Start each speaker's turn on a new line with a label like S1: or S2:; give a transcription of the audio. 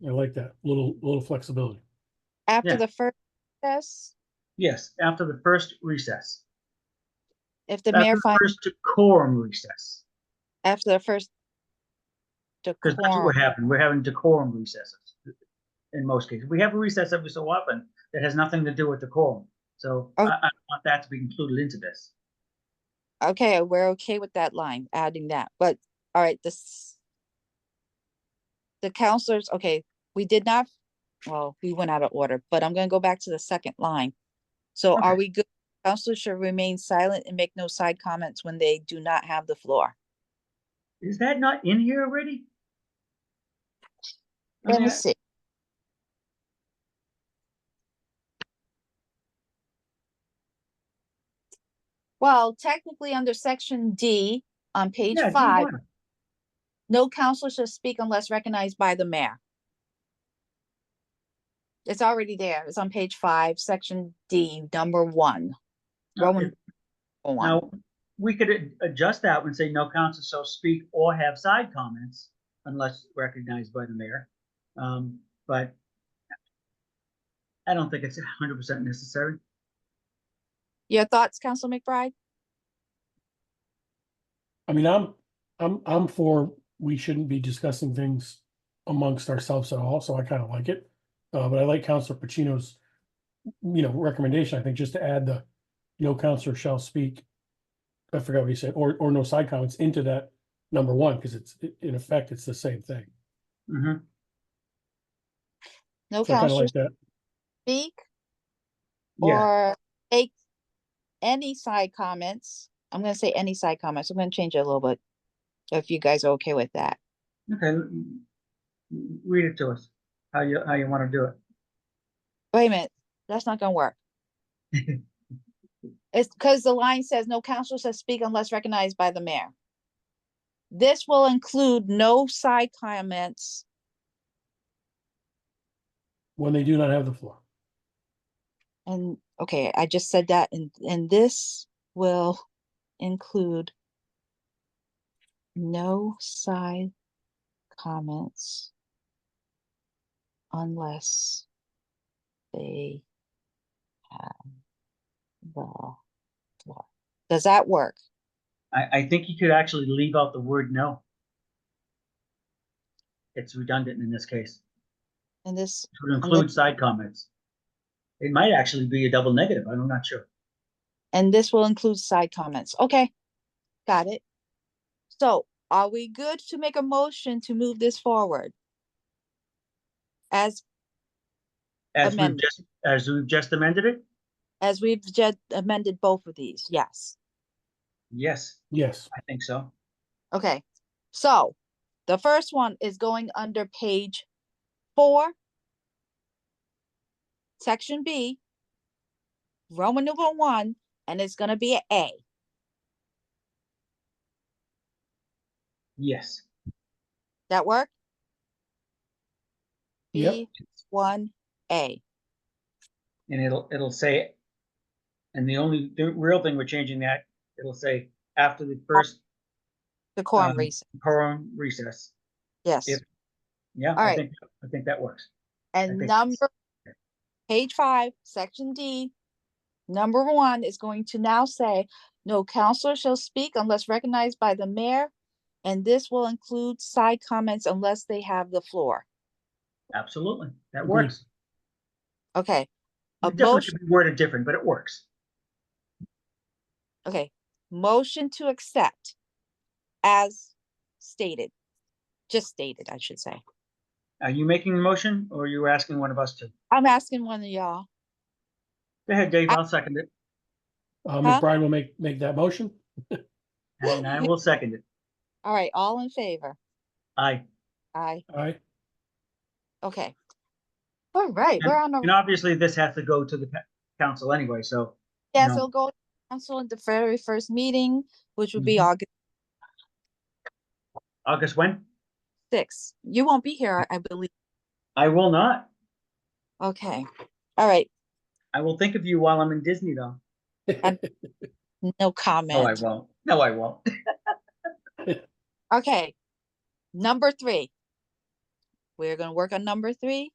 S1: I like that, little, little flexibility.
S2: After
S3: Yeah.
S2: the first recess,
S3: Yes, after the first recess.
S2: if the
S3: After
S2: mayor
S3: the
S2: finds,
S3: First quorum recess,
S2: after the first
S3: because that's what
S2: decorum,
S3: happened. We're having decorum recesses in most cases. We have a recess every so often that has nothing to do with decorum. So I,
S2: Oh.
S3: I don't want that to be included into this.
S2: okay, we're okay with that line, adding that, but, all right, this. The counselors, okay, we did not, well, we went out of order, but I'm gonna go back to the second line. So are
S3: Okay.
S2: we good? Counselors should remain silent and make no side comments when they do not have the floor.
S3: Is that not in here already? I
S2: Let
S3: mean,
S2: me
S3: I-
S2: see. Well, technically, under section D on page
S3: yeah, do
S2: five,
S3: one.
S2: no counselor shall speak unless recognized by the mayor. It's already there. It's on page five, section D, number one.
S3: Now,
S2: Roman
S3: if-
S2: number one.
S3: Now, we could ad- adjust that and say no council shall speak or have side comments unless recognized by the mayor. Um, but I don't think it's hundred percent necessary.
S2: Your thoughts, Council McBride?
S1: I mean, I'm, I'm, I'm for, we shouldn't be discussing things amongst ourselves at all, so I kind of like it. Uh, but I like Counselor Pacino's, you know, recommendation, I think, just to add the, no counselor shall speak. I forgot what he said, or, or no side comments into that number one, because it's, i- in effect, it's the same thing.
S3: Mhm.
S2: No
S1: So I kind of
S2: counselor
S1: like that.
S2: speak
S3: Yeah,
S2: or make any side comments. I'm gonna say any side comments. I'm gonna change it a little bit. If you guys are okay with that.
S3: okay. l- l- Read it to us, how you, how you want to do it.
S2: Wait a minute, that's not gonna work. It's because the line says no counselor shall speak unless recognized by the mayor. This will include no side comments.
S1: When they do not have the floor.
S2: And, okay, I just said that and, and this will include no side comments unless they have the floor. Does that work?
S3: I, I think you could actually leave out the word no. It's redundant in this case.
S2: And this,
S3: It would include side comments. It might actually be a double negative. I'm not sure.
S2: and this will include side comments. Okay, got it. So are we good to make a motion to move this forward? As
S3: As we've
S2: Amendment.
S3: just, as we've just amended it?
S2: As we've just amended both of these, yes.
S3: Yes,
S1: Yes,
S3: I think so.
S2: Okay, so the first one is going under page four. Section B. Roman numeral one, and it's gonna be an A.
S3: Yes.
S2: That work?
S1: Yep.
S2: B one A.
S3: And it'll, it'll say, and the only, the real thing we're changing that, it'll say after the first
S2: The quorum
S3: Um,
S2: reason,
S3: quorum recess.
S2: yes.
S3: if- Yeah, I
S2: Alright.
S3: think, I think that works.
S2: And
S3: think
S2: number, page five, section D, number one is going to now say, no counselor shall speak unless recognized by the mayor. And this will include side comments unless they have the floor.
S3: Absolutely. That
S1: Agreed.
S3: works.
S2: Okay, a
S3: It definitely
S2: motion-
S3: should be worded different, but it works.
S2: okay. Motion to accept as stated, just stated, I should say.
S3: Are you making a motion or are you asking one of us to?
S2: I'm asking one of y'all.
S3: Go ahead, Dave.
S2: I-
S3: I'll second it
S1: uh,
S2: Huh?
S1: McBride will make, make that motion.
S3: and I will second it.
S2: All right, all in favor?
S3: Aye.
S2: Aye,
S1: All right,
S2: okay. All right, we're on a.
S3: And obviously this has to go to the pa- council anyway, so
S2: Yes,
S3: No.
S2: it'll go to council in the very first meeting, which will be
S3: Mhm.
S2: August
S3: August when?
S2: sixth. You won't be here, I I believe.
S3: I will not.
S2: Okay, all right,
S3: I will think of you while I'm in Disney though.
S2: no
S3: No, I
S2: comment.
S3: won't. No, I won't.
S2: Okay, number three. We're gonna work on number three.